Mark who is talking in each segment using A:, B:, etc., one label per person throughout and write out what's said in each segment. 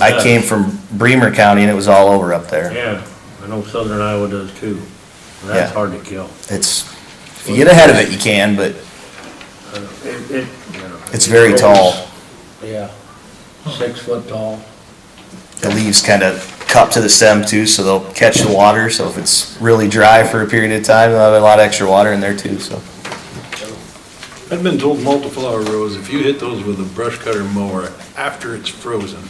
A: I came from Bremer County and it was all over up there.
B: Yeah, I know southern Iowa does too.
A: Yeah.
B: That's hard to kill.
A: It's, if you get ahead of it, you can, but
B: Uh, It, it, you know.
A: it's very tall.
B: Yeah, six foot tall.
A: The leaves kind of cup to the stem too, so they'll catch the water. So if it's really dry for a period of time, they'll have a lot of extra water in there too, so.
C: I've been told multi-flower rows, if you hit those with a brush cutter mower after it's frozen,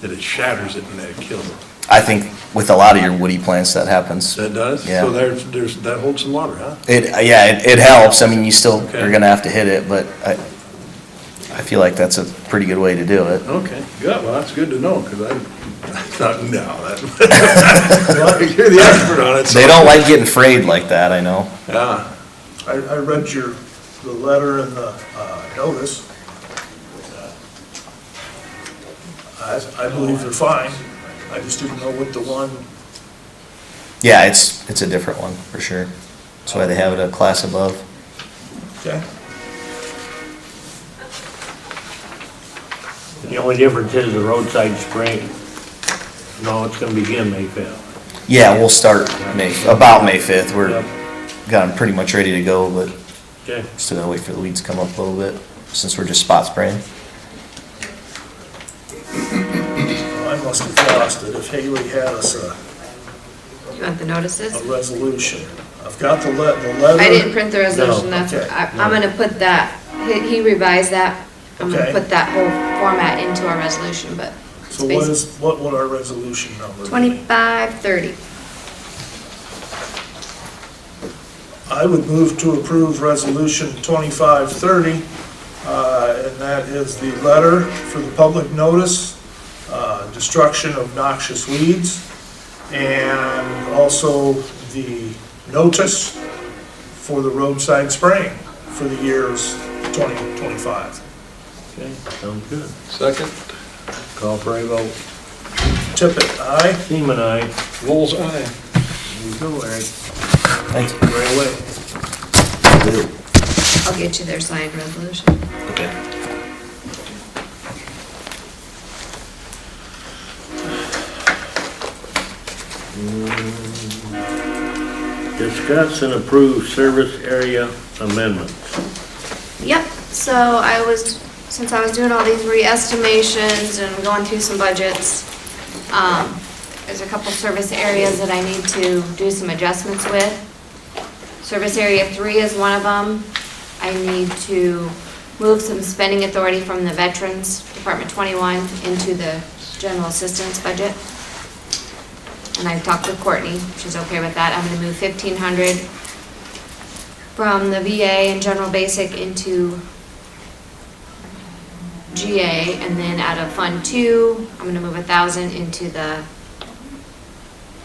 C: that it shatters it and that it kills it.
A: I think with a lot of your woody plants, that happens.
C: That does?
A: Yeah.
C: So there's, there's, that holds some water, huh?
A: It, yeah, it, it helps. I mean, you still are
C: Okay.
A: gonna have to hit it, but I, I feel like that's a pretty good way to do it.
C: Okay, good, well, that's good to know, because I, I thought, no, that, you're the expert on it. so-
A: They don't like getting frayed like that, I know.
C: Yeah,
D: I, I read your, the letter and the uh, notice. I, I believe they're fine. I just didn't know what the one,
A: Yeah, it's, it's a different one, for sure. That's why they have it a class above.
D: okay?
B: The only difference is the roadside spraying. No, it's gonna begin May fifth.
A: Yeah, we'll start May, about May fifth, we're, got 'em pretty much ready to go, but
B: Okay,
A: still gotta wait for the weeds to come up a little bit, since we're just spot spraying.
D: I must have lost it if Haley had us a,
E: You want the
D: a
E: notices?
D: resolution. I've got the le, the letter.
E: I didn't print the resolution, that's,
D: okay,
E: I- I'm gonna put that, he- he revised that. I'm gonna
D: Okay.
E: put that whole format into our resolution, but it's
D: So what
E: basically
D: is, what would our resolution number be?
E: twenty-five, thirty.
D: I would move to approve Resolution 2530, uh, and that is the letter for the public notice, uh, destruction of noxious weeds, and also the notice for the roadside spraying for the years 2025.
B: okay, sounds good.
C: second,
B: Call for a vote.
D: Tippit, aye?
B: Seaman, aye.
C: bull's eye.
B: There you go, Eric.
A: Thank you.
B: Right away.
E: I'll get you their signed resolution.
A: Okay.
B: Discuss and approve service area amendments.
E: Yep, so I was, since I was doing all these re-estimations and going through some budgets, um, there's a couple service areas that I need to do some adjustments with. Service area three is one of them. I need to move some spending authority from the Veterans Department twenty-one into the general assistance budget. And I've talked with Courtney, she's okay with that. I'm gonna move fifteen hundred from the VA and general basic into GA, and then out of Fund Two, I'm gonna move a thousand into the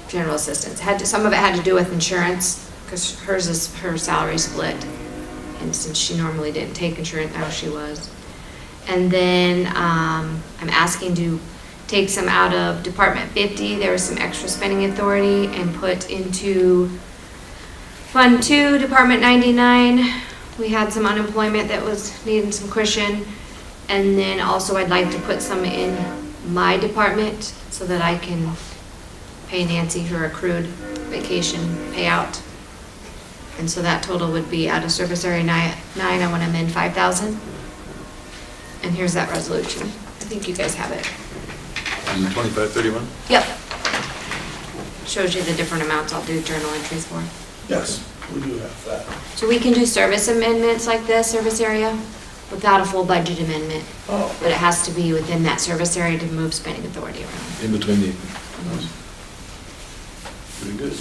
E: general assistance. Had, to- some of it had to do with insurance, because hers is, her salary split, and since she normally didn't take insurance, now she was. And then, um, I'm asking to take some out of Department Fifty, there was some extra spending authority, and put into Fund two, Department ninety-nine, we had some unemployment that was needing some cushion. And then also I'd like to put some in my department so that I can pay Nancy her accrued vacation payout. And so that total would be out of service area ni- nine, I want to amend five thousand. And here's that resolution. I think you guys have it.
C: Is it twenty-five thirty-one?
E: Yep. Shows you the different amounts I'll do journal entries for.
D: Yes, we do have that.
E: So we can do service amendments like this, service area, without a full budget amendment,
D: Oh,
E: but it has to be within that service area to move spending authority around.
C: In between the. Pretty good.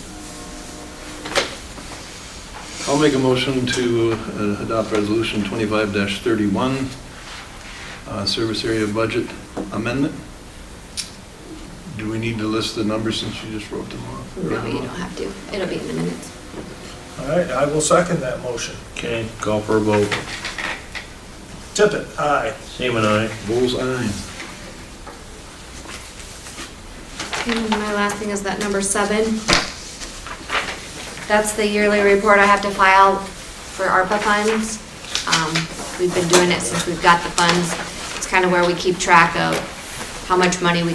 C: I'll make a motion to uh, adopt Resolution 25-31, uh, Service Area Budget Amendment. Do we need to list the numbers since you just wrote them off?
E: No, you don't have to, it'll be in the minutes.
D: all right, I will second that motion.
B: Okay, call for a vote.
D: Tippit, aye.
B: Seaman, aye.
C: Bullseye.
E: And my last thing is that number seven. That's the yearly report I have to file for ARPA funds. Um, We've been doing it since we've got the funds. It's kind of where we keep track of how much money we